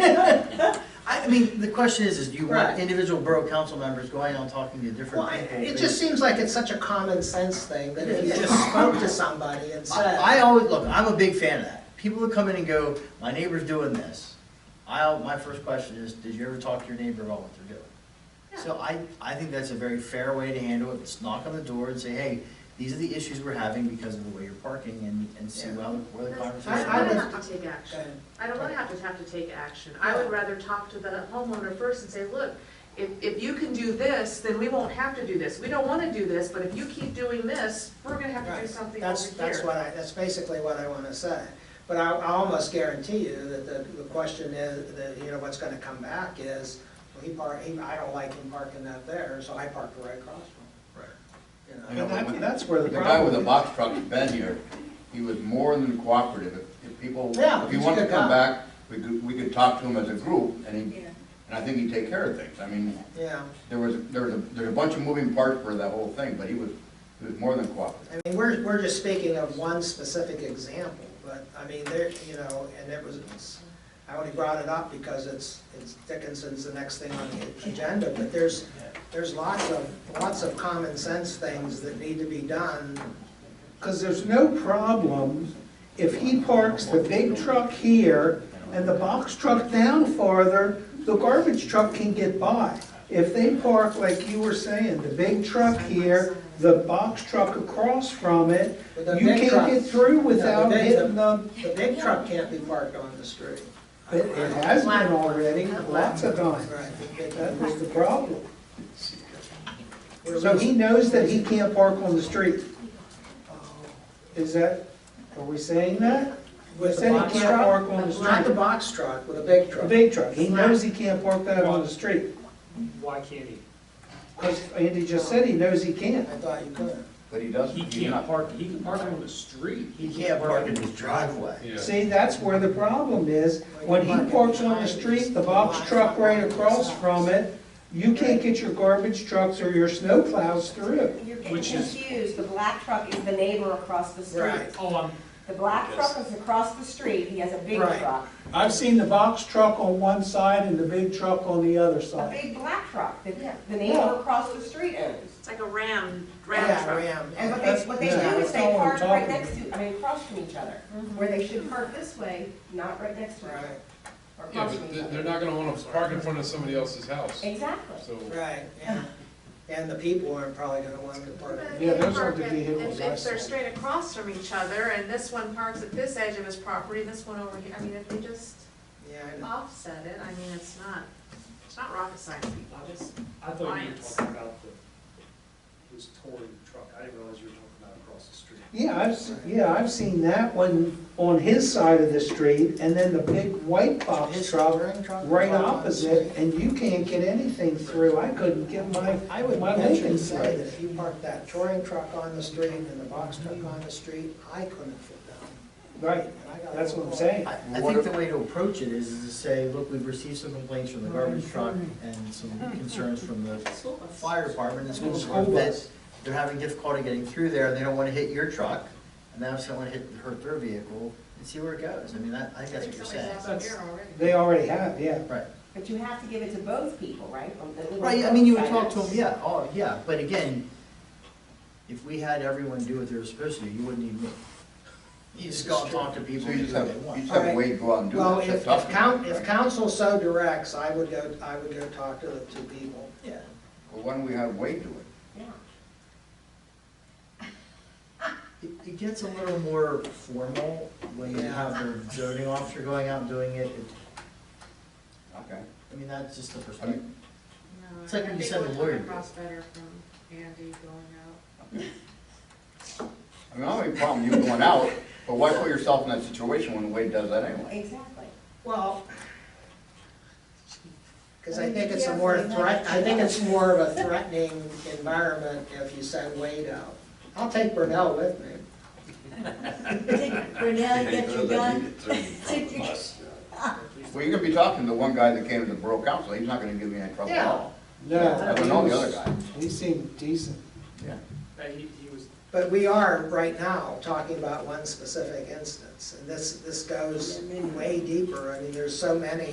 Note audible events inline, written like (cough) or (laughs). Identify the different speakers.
Speaker 1: I, I mean, the question is, is do you want
Speaker 2: Right.
Speaker 1: individual borough council members going out and talking to
Speaker 2: Well,
Speaker 1: different
Speaker 2: I-
Speaker 1: people?
Speaker 2: it just seems like it's such a common sense thing, that if you
Speaker 1: Yeah.
Speaker 2: just spoke to somebody and said.
Speaker 1: I I always, look, I'm a big fan of that. People that come in and go, my neighbor's doing this. I, my first question is, did you ever talk to your neighbor about what they're doing? So I, I think that's a very fair way to handle it. Just knock on the door and say, hey, these are the issues we're having because of the way you're parking and, and see
Speaker 2: Yeah.
Speaker 1: how, where the conversation.
Speaker 3: I
Speaker 2: I-
Speaker 3: don't want
Speaker 2: would-
Speaker 3: to have to take action. I don't want to have to have to take action. I would rather talk to the homeowner first and say, look, if, if you can do this, then we won't have to do this. We don't want to do this, but if you keep doing this, we're going to have to do
Speaker 2: Right.
Speaker 3: something over
Speaker 2: That's, that's
Speaker 3: here.
Speaker 2: what I, that's basically what I want to say. But I, I almost guarantee you that the, the question is, that, you know, what's going to come back is, well, he park, he, I don't like him parking up there, so I parked right across
Speaker 1: Right.
Speaker 2: from him.
Speaker 4: I
Speaker 2: you know?
Speaker 4: know,
Speaker 5: And that-
Speaker 4: but-
Speaker 5: that's where the
Speaker 4: The guy with the
Speaker 5: problem is.
Speaker 4: box truck's been here, he was more than cooperative, If- if people,
Speaker 2: Yeah,
Speaker 4: if he
Speaker 2: he's a
Speaker 4: wanted to
Speaker 2: good
Speaker 4: come
Speaker 2: guy.
Speaker 4: back, we could, we could talk to him as a group, and he, and I think he'd take care of things, I mean,
Speaker 2: Yeah,
Speaker 4: there was, there was, a- there's a bunch of moving parts for that whole thing, but he was, he was more than cooperative.
Speaker 2: I mean, we're, we're just speaking of one specific example, but, I mean, there, you know, and it was, it's- I only brought it up because it's, it's Dickinson's the next thing on the agenda, but there's, there's lots of, lots of common sense things that need to be done
Speaker 5: Because there's no problem if he parks the big truck here and the box truck down farther, the garbage truck can get by. If they park, like you were saying, the big truck here, the box truck across from it,
Speaker 2: But the
Speaker 5: you
Speaker 2: big truck-
Speaker 5: can't get through without
Speaker 2: the big-
Speaker 5: hitting the,
Speaker 2: The big truck can't be parked on the street.
Speaker 5: it it has been already, lots of times.
Speaker 2: Right.
Speaker 5: That was the problem. So he knows that he can't park on the street.
Speaker 2: uh,
Speaker 5: Is that, are we saying that?
Speaker 2: With the
Speaker 5: Said he
Speaker 2: box
Speaker 5: can't
Speaker 2: truck,
Speaker 5: park on the
Speaker 2: not the
Speaker 5: street.
Speaker 2: box truck, with a big
Speaker 5: The
Speaker 2: truck.
Speaker 5: big truck, he knows he can't park that on the street,
Speaker 6: Why can't he?
Speaker 5: because Andy just said he knows he
Speaker 2: I
Speaker 5: can't.
Speaker 2: thought you could.
Speaker 4: But he doesn't,
Speaker 6: He
Speaker 4: he's
Speaker 6: can't
Speaker 4: not,
Speaker 6: park, he can park on the street.
Speaker 1: He can't park in his driveway.
Speaker 5: See, that's where the problem is, when he parks on the street, the box truck right across from it, you can't get your garbage trucks or your snow plows through.
Speaker 7: You're getting
Speaker 6: Which is-
Speaker 7: confused, the black truck is the neighbor across the street.
Speaker 2: Right.
Speaker 6: Oh, I'm,
Speaker 7: The black truck is across the street, he has a big
Speaker 2: Right.
Speaker 7: truck,
Speaker 5: I've seen the box truck on one side and the big truck on the other
Speaker 7: a
Speaker 5: side.
Speaker 7: big black truck that the
Speaker 5: Yeah.
Speaker 7: neighbor across the street owns.
Speaker 3: It's like a round, round
Speaker 2: Yeah,
Speaker 3: truck.
Speaker 2: Ram.
Speaker 7: And what they, what they do is
Speaker 5: That's
Speaker 7: they
Speaker 5: all I'm
Speaker 7: park right
Speaker 5: talking
Speaker 7: next to, I mean, across from each other,
Speaker 1: Mm-hmm.
Speaker 7: where they should park this way, not right next to each
Speaker 2: Right,
Speaker 7: other, or
Speaker 8: Yeah,
Speaker 7: across
Speaker 8: but
Speaker 7: from each
Speaker 8: they- they're
Speaker 7: other.
Speaker 8: not gonna wanna park in front of somebody else's house,
Speaker 7: Exactly.
Speaker 8: so.
Speaker 2: right, yeah. And the people aren't probably gonna want to park.
Speaker 3: But if
Speaker 5: Yeah,
Speaker 3: they
Speaker 5: those
Speaker 3: park
Speaker 5: aren't the
Speaker 3: at-
Speaker 5: vehicles
Speaker 3: if-
Speaker 5: I
Speaker 3: If they're
Speaker 5: saw.
Speaker 3: straight across from each other, and this one parks at this edge of his property, this one over here, I mean, if we just
Speaker 2: Yeah, I know.
Speaker 3: offset it, I mean, it's not, it's not rocket science, people,
Speaker 6: I
Speaker 3: just,
Speaker 6: just, I thought you were
Speaker 3: Lions.
Speaker 6: talking about the, his touring truck. I didn't realize you were talking about across the street.
Speaker 5: Yeah, I've, se- yeah, I've seen that one on his side of the street, and then the big white box
Speaker 2: His
Speaker 5: Oh, truck
Speaker 2: touring truck
Speaker 5: right
Speaker 2: parked on the
Speaker 5: opposite,
Speaker 2: street.
Speaker 5: and you can't get anything through, I couldn't get my,
Speaker 2: I would
Speaker 5: my
Speaker 2: venture
Speaker 5: bacon
Speaker 2: to say that
Speaker 5: through.
Speaker 2: if you parked that touring truck on the street and the box truck on the street, I couldn't fit down.
Speaker 5: Right,
Speaker 2: And I got a
Speaker 5: that's what I'm
Speaker 2: little-
Speaker 5: saying.
Speaker 1: I, I think the way to approach it is, is to say, look, we've received some complaints from the garbage truck and some concerns from the fire department and school department that they're having difficulty getting through there, they don't wanna hit your truck, and now if someone hit, hurt their vehicle, and see where it goes, I mean, that, I think that's
Speaker 3: I think
Speaker 1: what you're
Speaker 3: somebody's
Speaker 1: saying.
Speaker 3: out of here already.
Speaker 5: They already have, yeah.
Speaker 1: Right,
Speaker 7: But you have to give it to both people, right? On the-
Speaker 1: right, I mean, you would talk to them, yeah, oh, yeah, but again, if we had everyone do what they were supposed to, do, you wouldn't need me. You just go and talk to people
Speaker 4: so
Speaker 1: and
Speaker 4: you
Speaker 1: do
Speaker 4: just
Speaker 1: what
Speaker 4: have,
Speaker 1: they want.
Speaker 4: you just have Wade go out and do
Speaker 2: Well,
Speaker 4: that,
Speaker 2: if,
Speaker 4: stuff.
Speaker 2: if
Speaker 4: talk to him,
Speaker 2: coun, if
Speaker 4: right?
Speaker 2: council so directs, I would go, I would go talk to the two people.
Speaker 1: Yeah.
Speaker 4: Well, why don't we have Wade do it?
Speaker 7: Yeah.
Speaker 1: It, it gets a little more formal when you have the zoning officer going out and doing it, It-
Speaker 4: Okay.
Speaker 1: I mean, that's just the perspective.
Speaker 3: No,
Speaker 1: It's like
Speaker 3: I
Speaker 1: when you
Speaker 3: think
Speaker 1: send
Speaker 3: it
Speaker 1: a
Speaker 3: would
Speaker 1: lawyer
Speaker 3: come
Speaker 1: to do
Speaker 3: across better from Andy going out.
Speaker 4: I mean, I don't have any problem you going out, but why put yourself in that situation when Wade does that anyway?
Speaker 9: (laughs)
Speaker 7: Exactly.
Speaker 2: Well. Because I think it's a more threat, I think it's more of a threatening environment if you send Wade out. I'll take Brunel with me.
Speaker 9: Brunel, you got your gun?
Speaker 7: (laughs)
Speaker 9: Take your-
Speaker 4: Well, you're gonna be talking to one guy that came to the borough council, he's not gonna give me any trouble at all.
Speaker 5: No.
Speaker 4: I don't know the other guy.
Speaker 5: He seemed decent.
Speaker 4: Yeah.
Speaker 6: Uh, He, he was
Speaker 2: But we are right now talking about one specific instance, and this, this goes way deeper. I mean, there's so many